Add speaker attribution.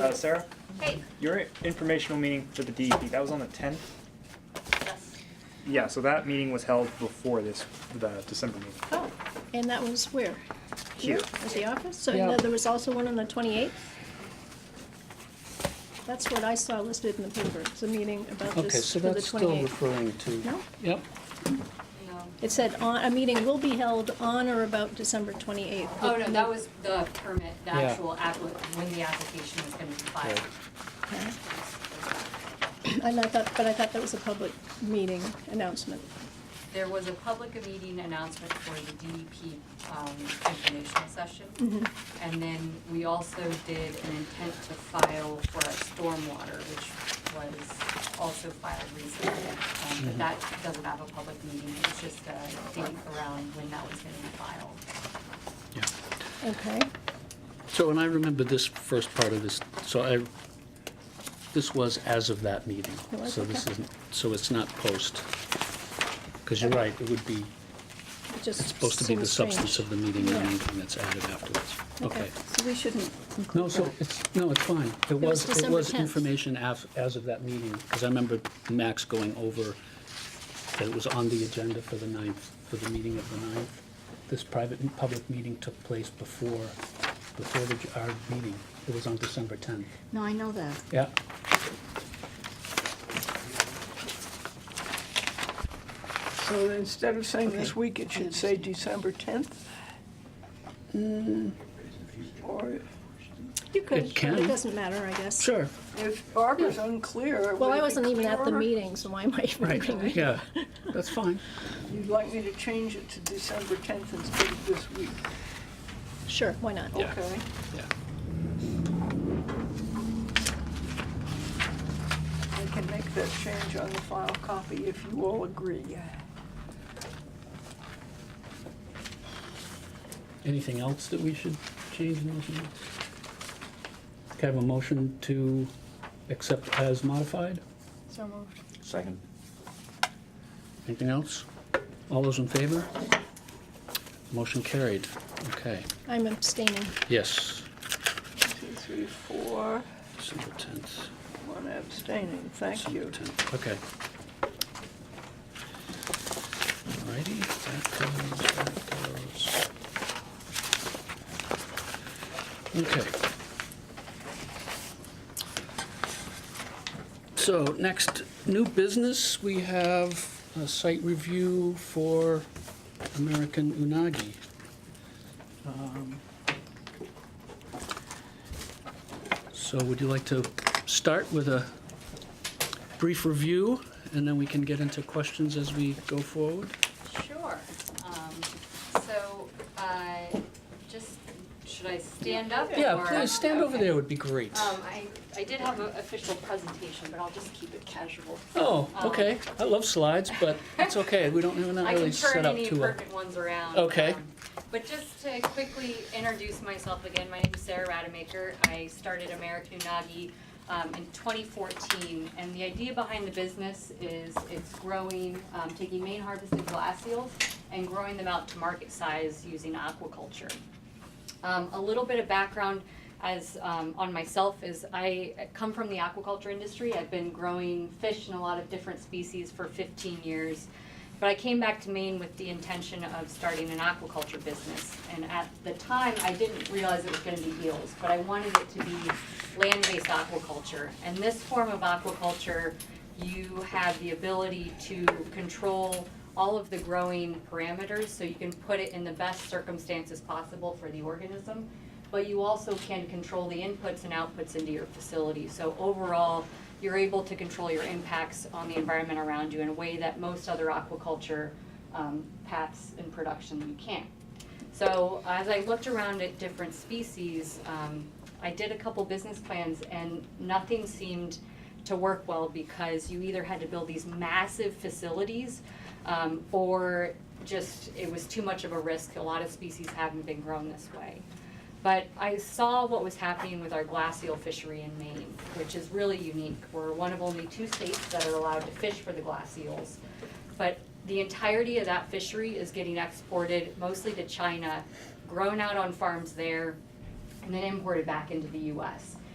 Speaker 1: Uh, Sarah,
Speaker 2: Hey.
Speaker 1: your informational meeting for the DEP, that was on the tenth?
Speaker 2: Yes.
Speaker 1: Yeah, so that meeting was held before this, the December meeting.
Speaker 3: Oh, and that was where?
Speaker 1: Here.
Speaker 3: At the office? So
Speaker 1: Yeah.
Speaker 3: and then there was also one on the 28th? That's what I saw listed in the paper, it's a meeting about
Speaker 4: Okay,
Speaker 3: this
Speaker 4: so
Speaker 3: for the 28th.
Speaker 4: that's still referring to.
Speaker 3: No?
Speaker 4: Yep,
Speaker 2: No.
Speaker 3: It said, on- "A meeting will be held on or about December 28th."
Speaker 2: Oh, no, that was the permit, the
Speaker 4: Yeah.
Speaker 2: actual appli- when the application was gonna be filed.
Speaker 4: Right.
Speaker 3: Okay. And I thought, but I thought that was a public meeting announcement.
Speaker 2: There was a public meeting announcement for the DEP, um, informational session. And then we also did an intent to file for our stormwater, which was also filed recently. Um, but that doesn't have a public meeting, it's just a date around when that was gonna be filed.
Speaker 4: yeah.
Speaker 3: Okay,
Speaker 4: So, and I remember this first part of this, so I, this was as of that meeting.
Speaker 3: It was,
Speaker 4: So this
Speaker 3: okay.
Speaker 4: isn't, so it's not post. Because you're right, it would be,
Speaker 3: it just
Speaker 4: it's supposed to be the
Speaker 3: seems strange.
Speaker 4: substance of the meeting and
Speaker 3: Yeah.
Speaker 4: anything that's added afterwards. Okay.
Speaker 5: So we shouldn't
Speaker 4: No,
Speaker 5: include
Speaker 4: so
Speaker 5: that.
Speaker 4: it's, no, it's fine. It
Speaker 3: was
Speaker 4: was, it
Speaker 3: December
Speaker 4: was
Speaker 3: 10th.
Speaker 4: information as, as of that meeting, because I remember Max going over that it was on the agenda for the ninth, for the meeting of the ninth. This private and public meeting took place before, before the, our meeting. It was on December tenth.
Speaker 5: No, I know that.
Speaker 4: Yeah.
Speaker 6: So instead of saying this week, it should say December 10th?
Speaker 3: Mm.
Speaker 6: Or
Speaker 3: You could,
Speaker 4: It can.
Speaker 3: but it doesn't matter, I guess.
Speaker 4: Sure.
Speaker 6: if Barbara's unclear.
Speaker 3: Hmm. Well,
Speaker 6: would
Speaker 3: I
Speaker 6: it be
Speaker 3: wasn't even at the
Speaker 6: clearer?
Speaker 3: meeting, so why am I even
Speaker 4: Right,
Speaker 3: reading?
Speaker 4: yeah. That's fine.
Speaker 6: You'd like me to change it to December 10th instead of this week?
Speaker 3: Sure, why not?
Speaker 4: Yeah.
Speaker 6: Okay.
Speaker 4: Yeah.
Speaker 6: I can make that change on the file copy if you all agree.
Speaker 4: Anything else that we should change in those minutes? Can I have a motion to accept as modified?
Speaker 3: So moved.
Speaker 7: Second.
Speaker 4: Anything else? All those in favor? Motion carried. Okay,
Speaker 3: I'm abstaining.
Speaker 4: yes,
Speaker 6: One, two, three, four,
Speaker 4: December 10th.
Speaker 6: one abstaining. Thank
Speaker 4: December
Speaker 6: you.
Speaker 4: 10th. Okay. Alrighty, that goes, that goes. Okay. So next, new business, we have a site review for American Unagi. Um, So would you like to start with a brief review, and then we can get into questions as we go forward.
Speaker 2: Sure. Um, So, uh, just, should I stand up?
Speaker 4: Yeah,
Speaker 2: or-
Speaker 4: please, stand over
Speaker 2: Okay.
Speaker 4: there would be great.
Speaker 2: Um, I, I did have an official presentation, but I'll just keep it casual.
Speaker 4: Oh,
Speaker 2: um,
Speaker 4: okay, I love slides, but it's okay, we don't, we're not
Speaker 2: I
Speaker 4: really
Speaker 2: can turn
Speaker 4: set up
Speaker 2: any
Speaker 4: to a...
Speaker 2: perfect ones around.
Speaker 4: Okay.
Speaker 2: um, But just to quickly introduce myself again, my name is Sarah Rademacher. I started American Unagi um, in 2014. And the idea behind the business is it's growing, um, taking main harvested glass eels and growing them out to market size using aquaculture. Um, a little bit of background as um, on myself is I come from the aquaculture industry. I've been growing fish in a lot of different species for 15 years, but I came back to Maine with the intention of starting an aquaculture business. And at the time, I didn't realize it was going to be eels, but I wanted it to be land-based aquaculture. And this form of aquaculture, you have the ability to control all of the growing parameters, so you can put it in the best circumstances possible for the organism. But you also can control the inputs and outputs into your facility. So overall, you're able to control your impacts on the environment around you in a way that most other aquaculture um, paths in production you can't. So as I looked around at different species, um, I did a couple business plans and nothing seemed to work well because you either had to build these massive facilities um, or just it was too much of a risk. A lot of species haven't been grown this way. But I saw what was happening with our glass eel fishery in Maine, which is really unique. We're one of only two states that are allowed to fish for the glass eels. But the entirety of that fishery is getting exported mostly to China, grown out on farms there, and then imported back into the US.